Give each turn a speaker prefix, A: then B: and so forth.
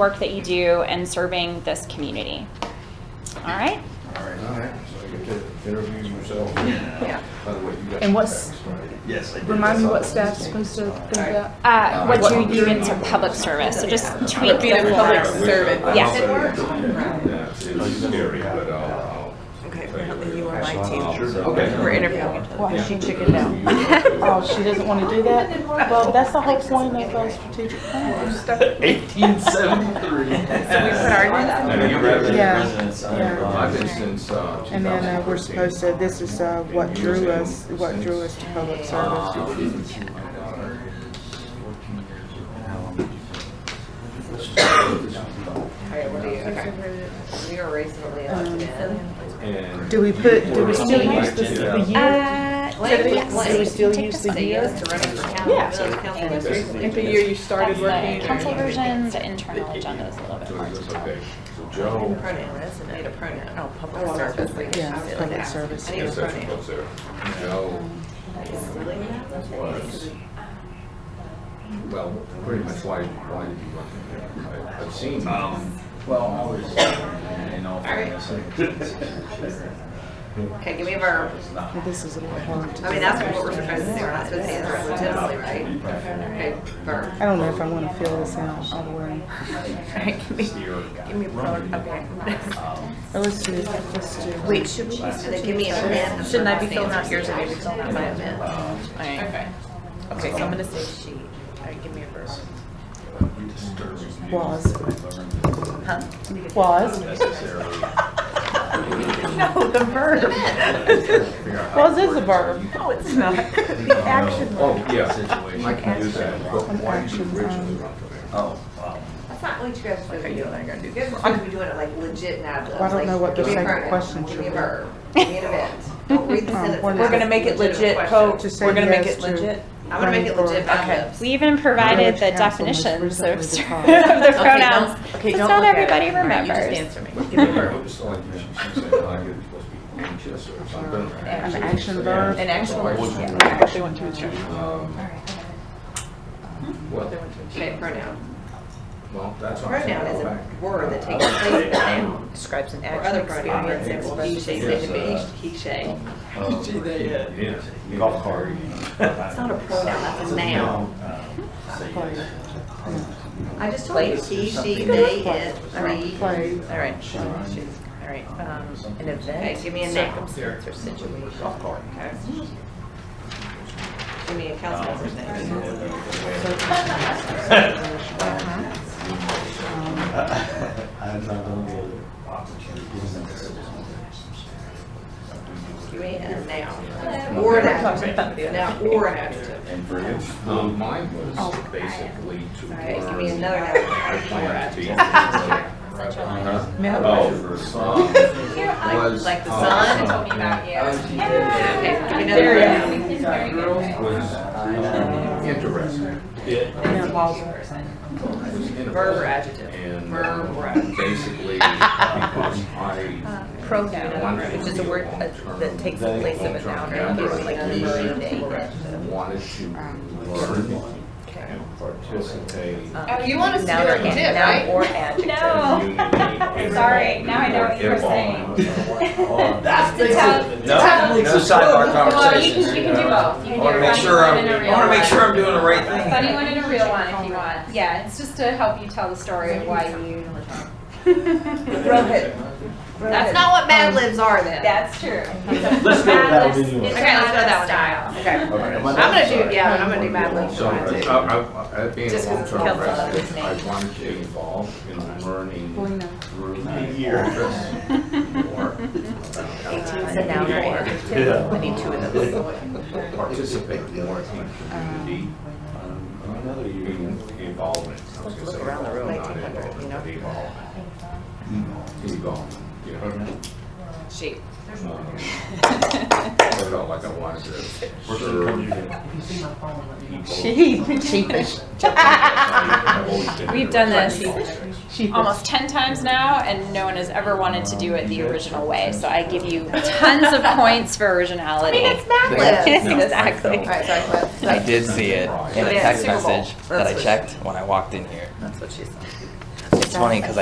A: work that you do and serving this community. All right?
B: All right.
C: All right, so you get to interview yourself.
D: Yeah.
C: By the way, you got.
D: And what's-
C: some facts, right?
B: Yes, I did.
D: Remind me
B: That's
D: what
B: all.
D: staff's supposed to think about.
A: Uh, what
D: What-
A: you do in some public service, so just tweak
D: Would be the
A: the
D: public
A: form.
D: servant.
A: Yeah.
C: Yes. It was scary, but I'll.
E: Okay, apparently you are my
C: I'll-
E: team.
C: Okay.
E: We're interviewing.
F: Why she chickened out? Oh, she doesn't want to do that? Well, that's the whole point of those strategic plans.
B: 1873.
E: So we put our,
B: And you read it,
F: Yeah.
B: residents, uh,
C: I've been since, uh.
F: And then uh, we're supposed to, this is uh, what drew us, what drew us to public service.
C: 2000. Uh,
G: Alright, what do you, okay. We were recently elected in.
C: And.
F: Do we put, do we still use the the year?
A: Uh,
G: Wait,
A: yes.
G: wait.
F: Do we still use
G: So
F: the
G: you
F: year?
G: used to running for council.
F: Yeah.
G: so the council was recently-
D: If the year you started
A: That's
D: working.
A: the council version, the internal agenda is a little bit more detailed.
C: Okay, so Joe.
G: Pronoun, that's a, need a pronoun.
E: oh, public service. I guess.
F: Yeah, public service.
G: I need a
C: Yes, that's
G: pronoun.
C: what's there. Joe was, well, pretty much why, why did you run? for mayor? I- I've seen.
B: Um, well, I was, in all fairness,
G: Okay, give me a verb.
F: This is a little hard to
G: I mean, that's what we're supposed to do, we're not supposed to answer it legitimately, right? Okay, verb.
F: I don't know if I want to fill this out all the way.
E: Give me give me a product, okay.
F: Or let's do, let's do.
E: Wait, should we be
G: And then give me an event.
E: Shouldn't I be filling out yours and
G: I
E: you be
G: be
E: filling out
G: my
E: mine?
G: event.
E: Okay. Okay, so I'm gonna say she. All right, give me a verse.
F: Was,
E: Huh?
F: was.
B: necessarily.
E: No, the verb.
F: Was is a verb.
E: No, it's not. The action
C: Oh,
E: word.
C: yeah.
B: Situation.
C: I can do that, but why did you
F: Action.
C: originally run for mayor?
B: Oh, wow.
G: That's not what you guys should
E: Okay,
G: be
E: you and
G: doing.
E: I are gonna do
G: You guys
E: this.
G: are supposed to be doing it like legit now.
F: I don't know what the second question
G: Give me a
F: should be.
G: verb, give me an event. Don't read the
F: Um,
G: sentence.
F: we're
G: out.
F: not-
G: It's a legitimate question.
F: Just say yes to-
G: I'm gonna make it
F: Running for-
G: legit by
E: Okay.
G: lips.
A: We even provided the
F: Village council most
A: definitions
F: recently
A: of ser- of
F: defined.
A: the
E: Okay,
A: pronouns.
E: don't- okay,
A: It's
E: don't
A: not
E: look at it.
A: everybody
E: All right,
A: remembers.
E: You just answer me. Give me a verb.
C: It's like, she said, I get supposed to be anxious or something.
F: An action verb.
E: An action word, yeah.
F: They went to a church.
C: Um, What?
G: Okay, pronoun.
C: Well, that's. what I'm saying,
G: Pronoun is
C: go
G: a
C: back.
G: word that takes place of a noun
E: Describes an
G: or
E: action
G: other
E: experience.
G: pronoun.
E: and
G: He,
E: versus-
G: she,
B: Yes,
G: they,
B: uh,
G: he, she.
B: Gee, they, uh,
C: Oh, Yeah.
B: Golf cart.
G: It's not a pronoun, that's a noun.
C: Um,
G: I just told you, he, she, they, it, the.
F: Play.
E: All right, she- she's, all right, um, an
G: Okay,
E: event,
G: give me a noun.
E: circumstance, or situation.
B: Golf cart.
E: Okay.
G: Give me a council member's name.
B: I'm Uh, not gonna be able to
G: Give me a noun. Or an adjective. Now, or an adjective.
B: And for you?
C: Um, mine was basically to
G: Oh, All right, give
C: learn.
G: me another noun.
C: plan to be. Oh,
G: Like, like
C: uh,
E: uh,
G: the sun. Okay, give me another noun.
C: Was interesting. Was
G: Verb or
C: interesting.
G: adjective.
C: And
G: Verb or
C: um,
G: adjective.
C: basically, because I.
E: Pronoun,
C: wanted to
E: which is a
C: be
E: word uh,
C: long-term-
E: that takes the place of a noun, or
C: long-term
E: other, like he,
C: member
E: she,
C: of
E: they.
C: the- Wanted to learn and participate. in
A: Um,
G: Oh, you want us to do it too,
E: Um, Noun
G: right?
E: or adjective.
C: unity.
A: Oh, Sorry, now I know what you were saying.
B: That's
A: the town-
B: No, no sidebar
A: Well, you can,
B: conversation.
A: you can do both. You
B: I
A: can
B: wanna
A: do a
B: make
A: funny
B: sure
A: one
B: I'm,
A: and a
B: I
A: real
B: wanna make
A: one.
B: sure I'm doing the right
A: A
B: thing.
A: Funny one and a real one if you want. Yeah, it's just to help you tell the story of why you.
G: Rohit. That's not what Mad Libs are then.
A: That's true.
B: Let's go with that one anyway.
A: It's a
G: Okay, let's go that
A: fabulous
G: one.
A: style.
G: Okay.
C: Okay.
G: I'm gonna do, yeah, I'm gonna do Mad Libs
C: So, uh,
G: for mine too.
C: I, I, I, being a
G: Just 'cause it's
C: long-term
G: Kelso, that's his
C: resident,
G: name.
C: I wanted to be involved in learning
F: Polina.
C: through the office more.
E: Eighteen's a noun or adjective, we need two of those.
C: Participate more in community.
B: Um,
C: Another Involvement. I was gonna say
E: Look around the room,
C: involvement, not
E: 1900, you know?
C: involvement, Involvement. Involvement, you know?
A: She.
C: Um, I felt like I wanted to serve
F: She, sheepish.
A: We've done this almost 10 times now, and no one has ever wanted to do it the original way. So I give you tons of points for originality.
G: Mad Libs.
A: exactly.
G: All right, sorry, Cliff.
H: I did see it in a
G: Yeah,
H: text
G: Super Bowl.
H: message that
E: That's
H: I
E: what-
H: checked when I walked in here.
E: That's what she said.
H: it's funny because